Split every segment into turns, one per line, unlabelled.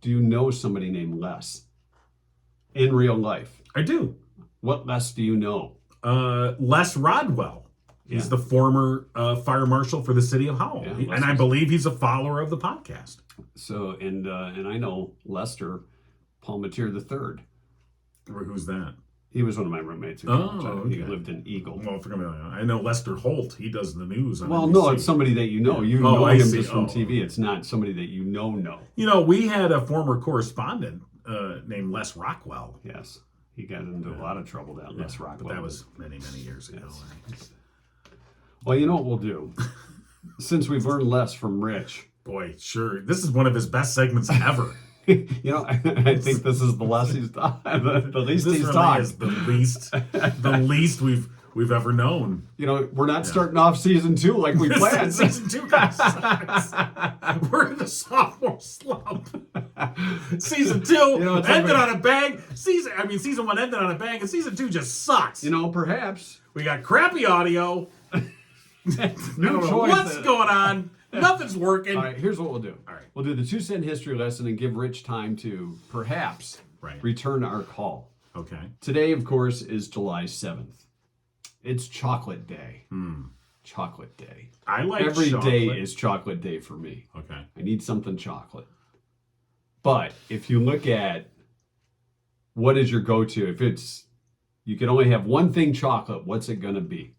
Do you know somebody named Les in real life?
I do.
What Les do you know?
Uh, Les Rodwell is the former uh, fire marshal for the city of Howell,
Yeah,
He-
Les
and I
is-
believe he's a follower of the podcast.
So and uh, and I know Lester Palmatier the third.
Or Who's that?
He was one of my roommates. in
Oh,
college. He
okay.
lived in Eagle.
Well, forget about that. I know Lester Holt. He does the news. On
Well, no,
NBC.
it's somebody that you know. You
Oh,
know
I
him
see.
just from
Oh.
TV. It's not somebody that you know know.
You know, we had a former correspondent uh, named Les Rockwell.
Yes, he got into a lot of trouble that Les Rockwell.
But that was many, many years ago.
Yes. Well, you know what we'll do, since we've learned less from Rich.
Boy, sure. This is one of his best segments ever.
you know, I, I think this is the less he's done, the, the least
this
he's
really
talked.
is the least, the least we've we've ever known.
You know, we're not starting off season two like we
This
planned.
season two kinda sucks. We're in the sophomore slump. Season two
know, it's
ended
like-
on a bang. Season, I mean, season one ended on a bang, and season two just sucks.
you know, perhaps
we got crappy audio. I
new
don't know
choice.
What's going on? Nothing's working.
All right, here's what we'll do.
All right.
we'll do the two cent history lesson and give Rich time to perhaps
Right.
return our call.
Okay.
Today, of course, is July 7th. It's chocolate day. Chocolate day.
Hmm. I like
Every day
chocolate.
is chocolate day for me.
okay.
I need something chocolate. But if you look at what is your go to, if it's you can only have one thing chocolate, what's it going to be?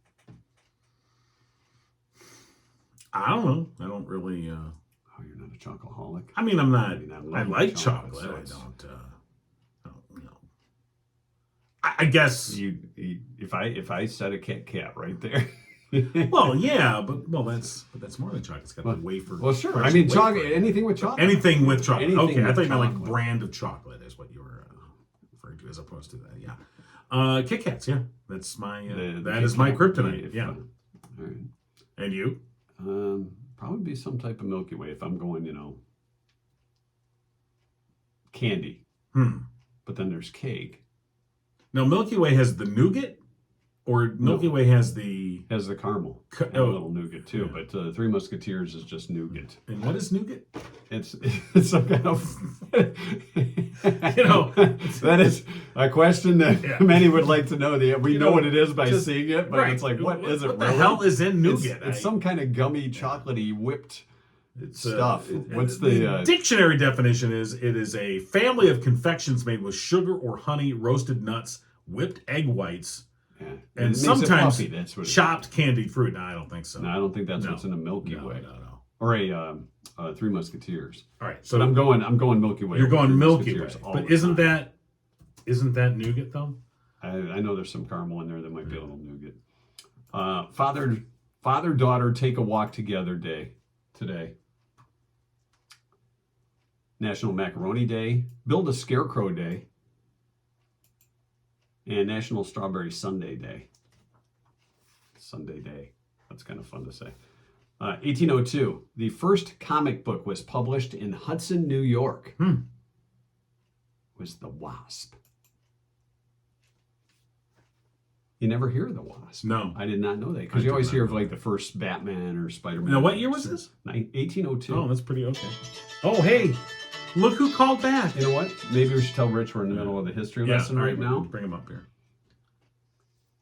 I don't know. I don't really. Uh,
Oh, you're not a chocoholic.
I mean, I'm not.
I mean, I
I,
love
like
chocolate,
chocolate.
so
I
it's-
don't. Uh, I don't know. I, I guess.
You, you if I if I set a Kit Kat right there.
Well, yeah, but well, that's but that's more than chocolate. It's got
Well-
the wafer.
well, sure. I
crushed
mean,
wafer.
chocolate. Anything with chocolate.
Anything with chocolate.
Anything
okay, I
with
thought you meant like
chocolate.
brand of chocolate is what you were uh, referring to, as opposed to that. Yeah, uh, Kit Kats. Yeah, that's my uh,
The- the
that
Kit
is my
Kat would be
kryptonite.
if, uh,
Yeah,
all right.
and you?
Um, probably be some type of Milky Way if I'm going, you know, candy.
Hmm.
But then there's cake.
Now Milky Way has the nougat, or Milky Way has the
Has the caramel
Ca-
and
oh.
a little nougat too.
Yeah.
But uh, Three Musketeers is just nougat.
and what is nougat?
It's it's some kind of you
know,
that is a question that
Yeah.
many would like to know. The we
You
know,
know,
what it is by
just-
seeing it, but it's like what is it?
What the
really?
hell is in
It's-
nougat?
It's,
I-
some kind of gummy, chocolatey, whipped
it's, uh,
stuff.
it-
What's
it-
the uh,
dictionary definition? Is it is a family of confections made with sugar or honey, roasted nuts, whipped egg whites,
yeah. It
and
makes it
sometimes
puffy, that's what it is.
chopped candied fruit. No, I don't think so.
No, I don't think that's
No.
what's in a Milky
no,
Way
no, no.
or a um, uh, Three Musketeers.
All right, so
But I'm going. I'm going Milky Way.
you're
over Three
going Milky Way,
Musketeers all
but
the
isn't
time.
that isn't that nougat though?
I, I know there's some caramel in there that might be a little nougat. Uh, father, father, daughter, take a walk together day today. National Macaroni Day, Build a Scarecrow Day, and National Strawberry Sunday Day. Sunday Day. That's kind of fun to say. Uh, 1802, the first comic book was published in Hudson, New York.
Hmm.
Was the Wasp. You never hear of the Wasp.
No.
I did not know that
I
because
did
you always
not
hear of
know
like the first Batman or Spider Man.
Now, what year was this?
1802.
Oh, that's pretty okay. Oh, hey, look who called back.
You know what? Maybe we should tell Rich we're in the middle of the history
Yeah,
lesson
all
right now.
Bring him up here.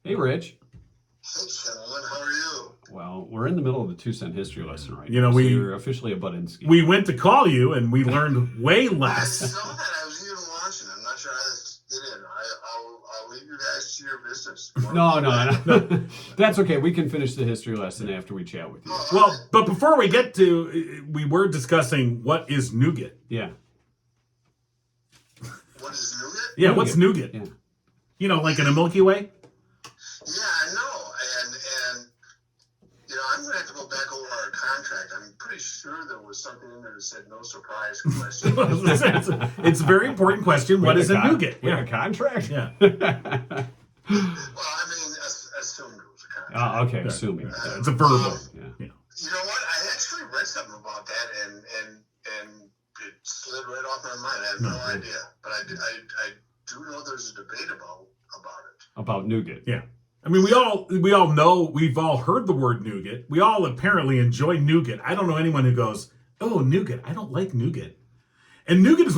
Hey, Rich.
Hey, gentlemen, how are you?
Well, we're in the middle of the two cent history lesson right
You
now.
know,
so
we-
you're officially a Budinsky.
We went to call you, and we learned way
I
less.
saw that. I was even watching. I'm not sure I did it. I, I'll, I'll leave you guys to your business.
no, no, no. That's okay. We can finish the history lesson after we chat with you.
Well, but before we get to, we were discussing what is nougat.
Yeah.
What is nougat?
Yeah, what's nougat?
Yeah.
You know, like in a Milky Way.
Yeah, I know. And, and you know, I'm going to have to go back over our contract. I'm pretty sure there was something in there that said no surprise question.
it's, it's a very important question. What
We
is a
had con-
nougat?
We had
Yeah,
a contract?
yeah.
well, I mean, as- assume there was a contract.
Oh, okay. Assuming.
Yeah.
It's a verbal.
Yeah.
You know what? I actually read something about that, and and and it slid right off my mind. I have no,
No.
idea, but I, do- I, I do know there's a debate about about it.
About nougat.
I mean, we all we all know we've all heard the word nougat. We all apparently enjoy nougat. I don't know anyone who goes, "Oh, nougat! I don't like nougat." And nougat is